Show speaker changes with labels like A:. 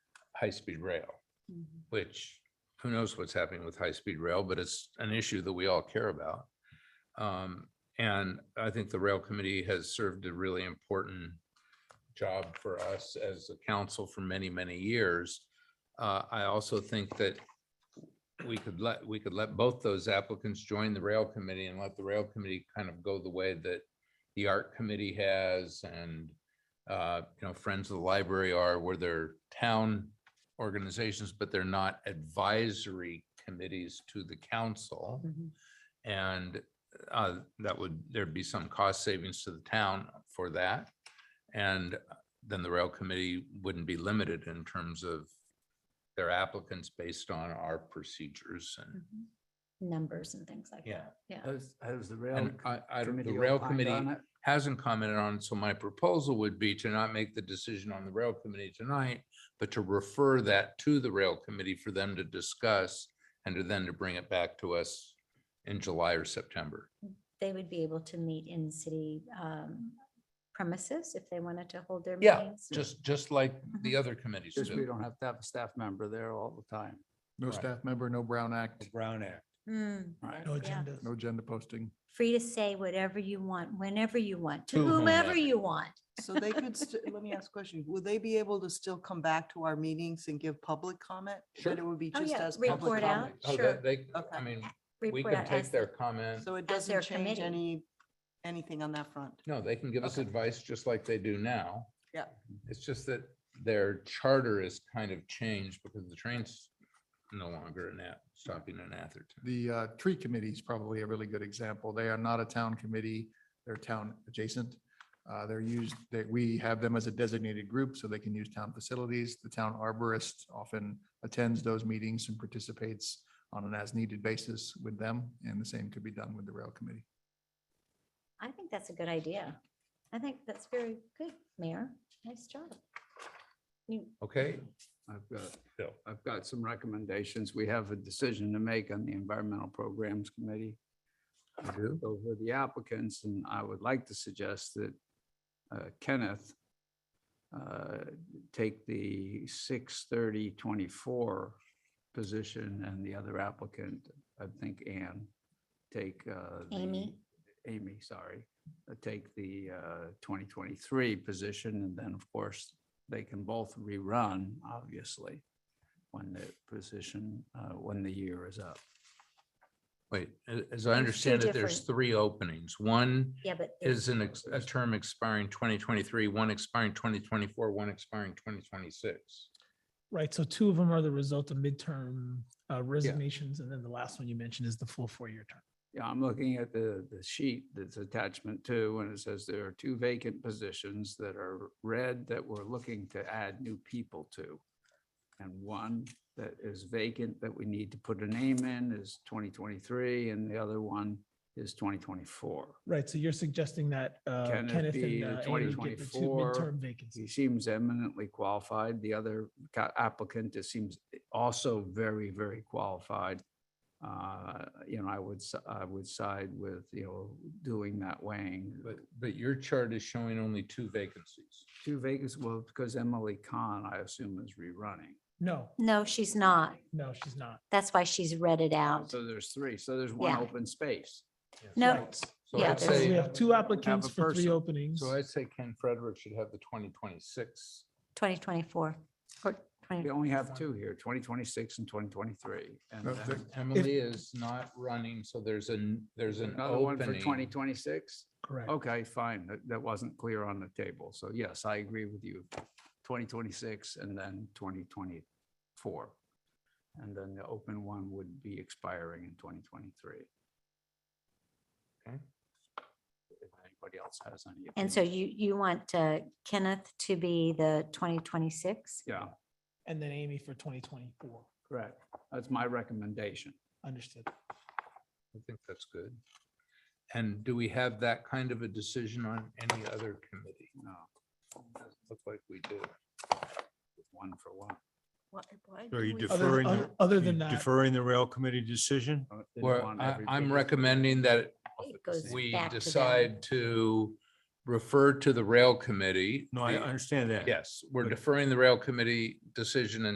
A: high-speed rail,
B: Mm-hmm.
A: which who knows what's happening with high-speed rail, but it's an issue that we all care about. Um, And I think the rail committee has served a really important job for us as a council for many, many years. Uh, I also think that we could let, we could let both those applicants join the rail committee and let the rail committee kind of go the way that the art committee has and, uh, you know, Friends of the Library are where they're town organizations, but they're not advisory committees to the council. And uh, that would, there'd be some cost savings to the town for that. And then the rail committee wouldn't be limited in terms of their applicants based on our procedures and,
B: Numbers and things like
A: yeah.
B: that. Yeah.
C: Has, has the rail?
A: And I, I, don't- the
C: committee
A: rail
C: opined
A: committee
C: on it?
A: hasn't commented on, so my proposal would be to not make the decision on the rail committee tonight, but to refer that to the rail committee for them to discuss and to then to bring it back to us in July or September.
B: They would be able to meet in city um, premises if they wanted to hold their
A: Yeah,
B: meetings.
A: Just, just like
B: Mm-hmm.
A: the other committees
C: Just we
A: do.
C: don't have to have a staff member there all the time.
D: No
A: Right.
D: staff member, no Brown Act,
E: Brown Act.
B: Mm,
C: Right.
F: No
B: Yeah.
F: agenda.
D: no agenda posting.
B: Free to say whatever you want, whenever you want, to
A: To
B: whomever
A: whomever.
B: you want.
G: So they could, st- let me ask a question. Will they be able to still come back to our meetings and give public comment?
A: Sure.
G: But it would be
B: Oh,
G: just
B: yeah,
G: as public
B: report out.
G: comment.
A: Oh, that-
B: sure.
A: They, I
G: Okay.
A: mean, we
B: Report
A: can
B: out
A: take
B: as
A: their
B: the-
A: comment.
G: So it
B: As their
G: doesn't change
B: committee.
G: any, anything on that front.
A: No, they can give us
G: Okay.
A: advice just like they do now.
G: Yeah.
A: It's just that their charter is kind of changed because the train's no longer in that, stopping in Atherton.
D: The uh, tree committee is probably a really good example. They are not a town committee. They're town adjacent. Uh, They're used, that we have them as a designated group so they can use town facilities. The town arborist often attends those meetings and participates on an as-needed basis with them, and the same could be done with the rail committee.
B: I think that's a good idea. I think that's very good, Mayor. Nice job. You,
A: Okay,
C: I've got,
A: Bill.
C: I've got some recommendations. We have a decision to make on the Environmental Programs Committee.
A: You do?
C: Over the applicants, and I would like to suggest that uh, Kenneth uh, take the 6:30 24 position and the other applicant, I think Ann, take uh, the-
B: Amy.
C: Amy, sorry, uh, take the uh, 2023 position, and then, of course, they can both rerun, obviously, when the position, uh, when the year is up.
A: Wait, a- as I
B: two
A: understand it, there's
B: different-
A: three openings. One
B: Yeah, but. there's-
A: is an, ex- a term expiring twenty twenty-three, one expiring twenty twenty-four, one expiring twenty twenty-six.
F: Right, so two of them are the result of midterm uh, resignations, and then the last one you mentioned is the full four-year term.
C: Yeah, I'm looking at the, the sheet that's attachment two, and it says there are two vacant positions that are red that we're looking to add new people to. And one that is vacant that we need to put a name in is twenty twenty-three, and the other one is twenty twenty-four.
F: Right, so you're suggesting that uh,
C: Can it
F: Kenneth
C: be the
F: and uh, Amy get the two
C: 2024?
F: midterm
C: He
F: vacancies.
C: seems eminently qualified. The other ca- applicant just seems also very, very qualified. Uh, You know, I would, s- I would side with, you know, doing that weighing.
A: But, but your chart is showing only two vacancies.
C: Two Vegas, well, because Emily Khan, I assume, is rerunning.
F: No,
B: No, she's not.
F: no, she's not.
B: That's why she's read it out.
C: So there's three. So there's one
B: Yeah.
C: open space.
B: No,
A: So
B: Yeah,
A: I'd
B: there's-
F: So we
A: say,
F: have two applicants
C: a
F: for three
C: person.
F: openings.
A: so I'd say Ken Frederick should have the twenty twenty-six.
B: 2024 or 20.
C: We only have two here, 2026 and 2023. And
D: No,
C: then
D: the-
A: Emily is not running, so there's an, there's an
C: another one for
A: opening.
C: 2026?
F: Correct.
C: Okay, fine. That, that wasn't clear on the table. So yes, I agree with you. Twenty twenty-six and then twenty twenty-four. And then the open one would be expiring in twenty twenty-three.
A: Okay.
C: If anybody else has any.
B: And so
C: opinions.
B: you, you want uh, Kenneth to be the 2026?
C: Yeah,
F: And then Amy for 2024.
C: correct. That's my recommendation.
F: Understood.
A: I think that's good. And do we have that kind of a decision on any other committee?
C: No,
A: Doesn't Look like we do.
C: one for one.
E: So Are you
F: Other-
E: deferring,
F: other-
E: the-
F: Other
E: you
F: than that,
E: deferring the rail committee decision?
C: I Uh, didn't
A: Well,
C: want
A: I,
C: every
A: I'm
C: people-
A: recommending that
B: It goes
A: we
B: back to them.
A: decide to refer to the rail committee.
E: No, I
A: the-
E: understand that.
A: Yes, we're
E: But-
A: deferring the rail committee decision